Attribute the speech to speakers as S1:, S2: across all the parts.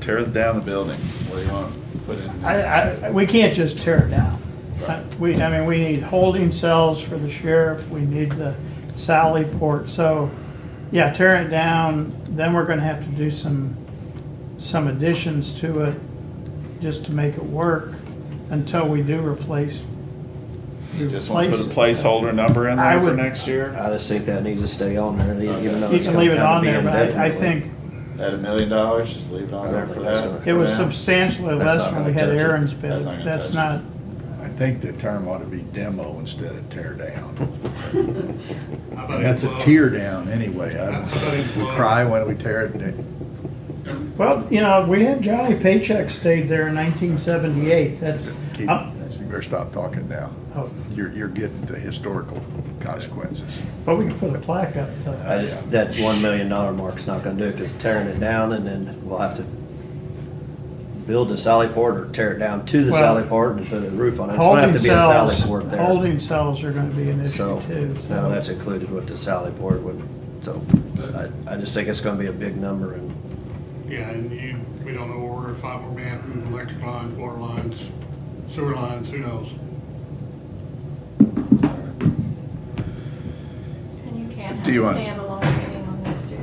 S1: Tear down the building. What do you want to put in?
S2: I, I, we can't just tear it down. Uh, We, I mean, we need holding cells for the sheriff, we need the Sally port, so, yeah, tear it down, then we're gonna have to do some, some additions to it, just to make it work, until we do replace.
S1: You just want to put a
S2: replace it.
S1: placeholder number in
S2: I
S1: there for
S2: would-
S1: next year?
S3: I just think that needs to stay on there, even though
S2: You
S3: it's
S2: can
S3: gonna
S2: leave it
S3: kinda
S2: on
S3: be
S2: there, but I, I
S3: indefinitely.
S2: think
S1: At a million dollars, just leave it
S3: I
S1: on
S3: don't
S1: there for
S3: think that's
S1: that?
S3: gonna-
S2: it was
S1: For now?
S2: substantially
S3: That's
S2: less
S3: not
S2: when we
S3: gonna
S2: had
S3: touch it.
S2: Aaron's bid,
S1: That's not gonna touch
S2: that's
S1: it.
S2: not,
S4: I think the term ought to be demo instead of tear down.
S5: How about
S4: That's a
S5: implode?
S4: tear down anyway. I we cry when we tear it down.
S2: Well, you know, we had Johnny Paycheck stayed there in nineteen seventy-eight, that's,
S4: Keep- You
S2: uh,
S4: better stop talking now.
S2: oh,
S4: You're, you're getting the historical consequences.
S2: but we can put a plaque up. uh,
S3: I just, that one million dollar mark's not gonna do it, cause tearing it down and then we'll have to build a sally port or tear it down to the
S2: Well,
S3: sally port and put a roof on it. It's gonna have
S2: Holding
S3: to be a sally
S2: cells,
S3: port there.
S2: holding cells are gonna be an issue
S3: So,
S2: too,
S3: no, that's
S2: so.
S3: included with the sally port would, so I, I just think it's gonna be a big number and
S5: Yeah, and you, we don't know where we're, if we're mad, electric lines, water lines, sewer lines, who knows?
S6: And you can't have a
S4: Do you want-
S6: standalone meeting on this too.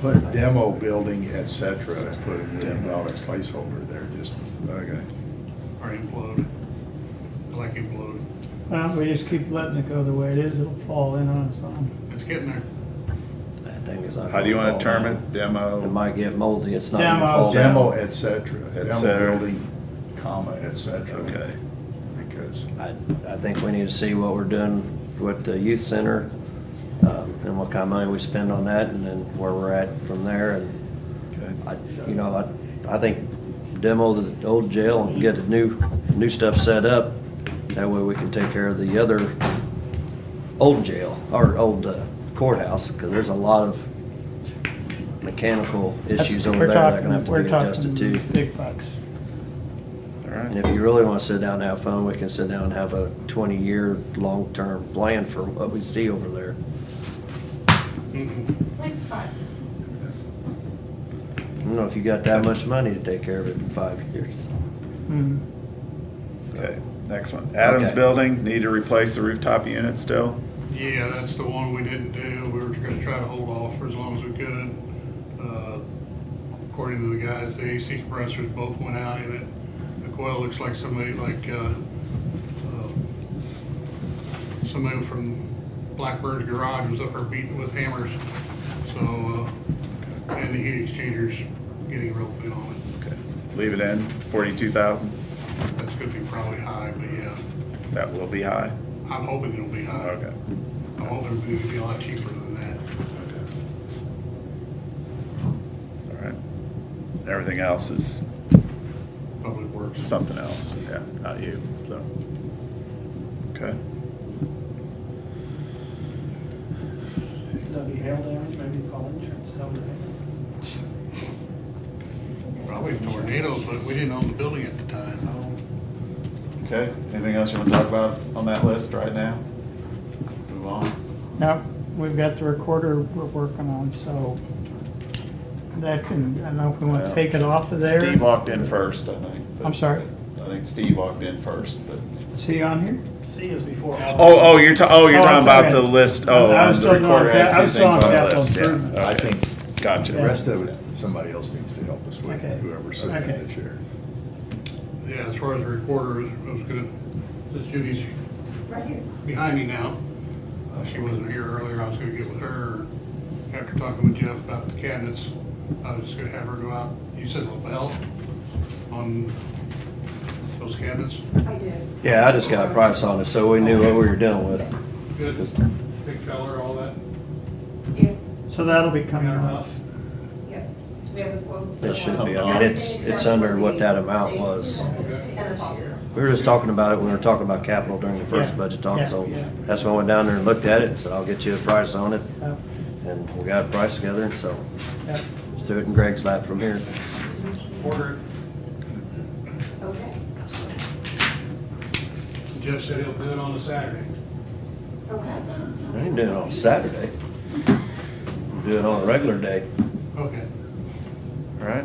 S4: Put demo building, et cetera, and put a million dollar placeholder there, just, okay.
S5: Or implode, like implode.
S2: Well, we just keep letting it go the way it is, it'll fall in on its own.
S5: It's getting there.
S3: that thing is not.
S1: How do you
S3: gonna
S1: want to
S3: fall
S1: term it?
S3: down.
S1: Demo?
S3: It might get moldy, it's not gonna
S2: Demo.
S3: fall down.
S4: Demo, et cetera. Demo
S1: cetera.
S4: building, comma, et cetera.
S1: Okay.
S4: Because
S3: I, I think we need to see what we're doing with the youth center, um, and what kind of money we spend on that, and then where we're at from there, and
S4: Okay.
S3: I, you know, I, I think demo the old jail and get the new, new stuff set up, that way we can take care of the other old jail, or old uh, courthouse, because there's a lot of mechanical issues over
S2: We're
S3: there that are
S2: talking-
S3: gonna have to
S2: we're
S3: be adjusted
S2: talking
S3: to.
S2: Big bucks.
S1: All
S3: And
S1: right.
S3: if you really want to sit down and have fun, we can sit down and have a twenty-year, long-term plan for what we see over there.
S5: Mm-mm.
S6: At least five.
S3: I don't know if you got that much money to take care of it in five years.
S2: Mhm.
S1: Okay, next one. Adams
S3: uh, Okay.
S1: Building, need to replace the rooftop unit still?
S5: Yeah, that's the one we didn't do. We were gonna try to hold off for as long as we could. Uh, According to the guys, the AC compressors both went out in it. The coil looks like somebody like, uh, uh, somebody from Blackbird's garage was up there beating with hammers. So, uh, and the heat exchanger's getting real thin on it.
S1: Okay. Leave it in, forty-two thousand?
S5: That's gonna be probably high, but yeah,
S1: That will be high?
S5: I'm hoping it'll be high.
S1: Okay.
S5: I'm hoping it'll be a lot cheaper than that.
S1: Okay. All right. Everything else is
S5: Public Works.
S1: something else, yeah, not you, so. Okay.
S2: That'd be hail damage, maybe call insurance, tell them.
S5: Probably tornadoes, but we didn't own the building at the time.
S1: Okay, anything else you want to talk about on that list right now? Move on.
S2: Now, we've got the recorder we're working on, so that can, I don't know if we wanna take it off of there.
S1: Steve walked in first, I think.
S2: I'm sorry?
S1: I think Steve walked in first, but.
S2: Is he on here?
S7: C is before all.
S1: Oh, oh, you're ta- oh, you're
S2: Oh,
S1: talking
S2: I'm
S1: about
S2: sorry.
S1: the list, oh,
S2: I was
S1: on the
S2: still going
S1: recorder has
S2: ca-
S1: two
S2: I was
S1: things
S2: still on
S1: on the
S2: capital
S1: list,
S2: improvement.
S1: yeah.
S4: I
S1: Okay.
S4: think- the
S1: Gotcha.
S4: rest of it, somebody else needs to help us with,
S2: Okay.
S4: whoever's sitting
S2: Okay.
S4: in the chair.
S5: Yeah, as far as the recorder, is, I was gonna, this Judy's
S6: Right here.
S5: behind me now. Uh, She wasn't here earlier, I was gonna get with her. After talking with Jeff about the cabinets, I was just gonna have her go out, you said LaBelle on those cabinets?
S6: I did.
S3: Yeah, I just got a price on it, so we knew what we were dealing with.
S5: Good, big feller, all that?
S6: Yeah,
S2: So that'll be coming off.
S6: yeah. We have a quote. Um,
S3: It should be
S1: on.
S6: Yeah,
S3: It's- it's
S6: except
S3: under
S6: for
S3: what
S6: the
S3: that amount
S6: safety
S3: was.
S6: And the faucet.
S3: We were just talking about it when we were talking about capital during the first
S2: Yeah,
S3: budget talk,
S2: yeah,
S3: so
S2: yeah.
S3: that's when I went down there and looked at it, and said, I'll get you a price on it,
S2: Uh,
S3: and we got a price together, and so
S2: yeah.
S3: threw it in Greg's lap from here.
S5: Order.
S6: Okay,
S5: Jeff said he'll do it on a Saturday.
S6: okay.
S3: I ain't doing it on Saturday. Do it on a regular day.
S5: Okay.
S1: All right,